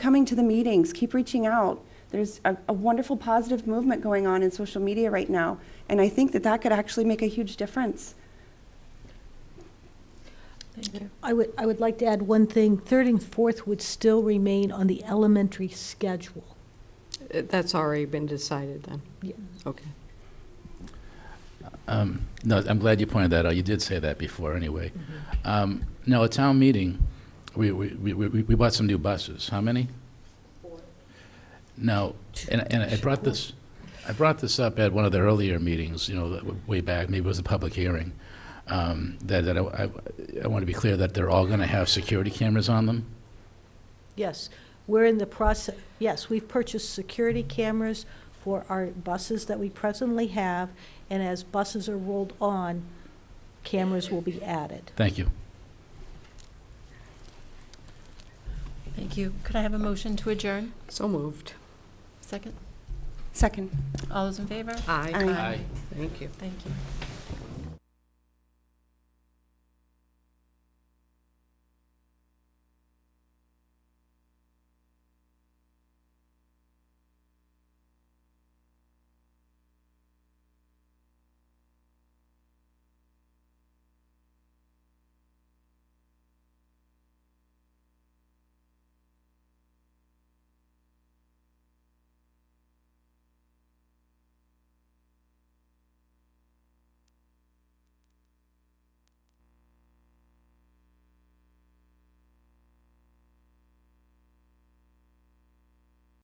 coming to the meetings, keep reaching out. There's a, a wonderful positive movement going on in social media right now, and I think that that could actually make a huge difference. Thank you. I would, I would like to add one thing. Third and fourth would still remain on the elementary schedule. Uh, That's already been decided then? Yeah. Okay. Um, No, I'm glad you pointed that out. You did say that before, anyway. Um, No, at town meeting, we, we, we, we we bought some new buses. How many? No, and, and I brought this, I brought this up at one of the earlier meetings, you know, that w- way back, maybe it was a public hearing, um, that, that I, I- I want to be clear that they're all going to have security cameras on them. Yes, we're in the process, yes, we've purchased security cameras for our buses that we presently have, and as buses are rolled on, cameras will be added. Thank you. Thank you. Could I have a motion to adjourn? So moved. Second? Second. All those in favor? Aye. Aye. Aye. Thank you. Thank you.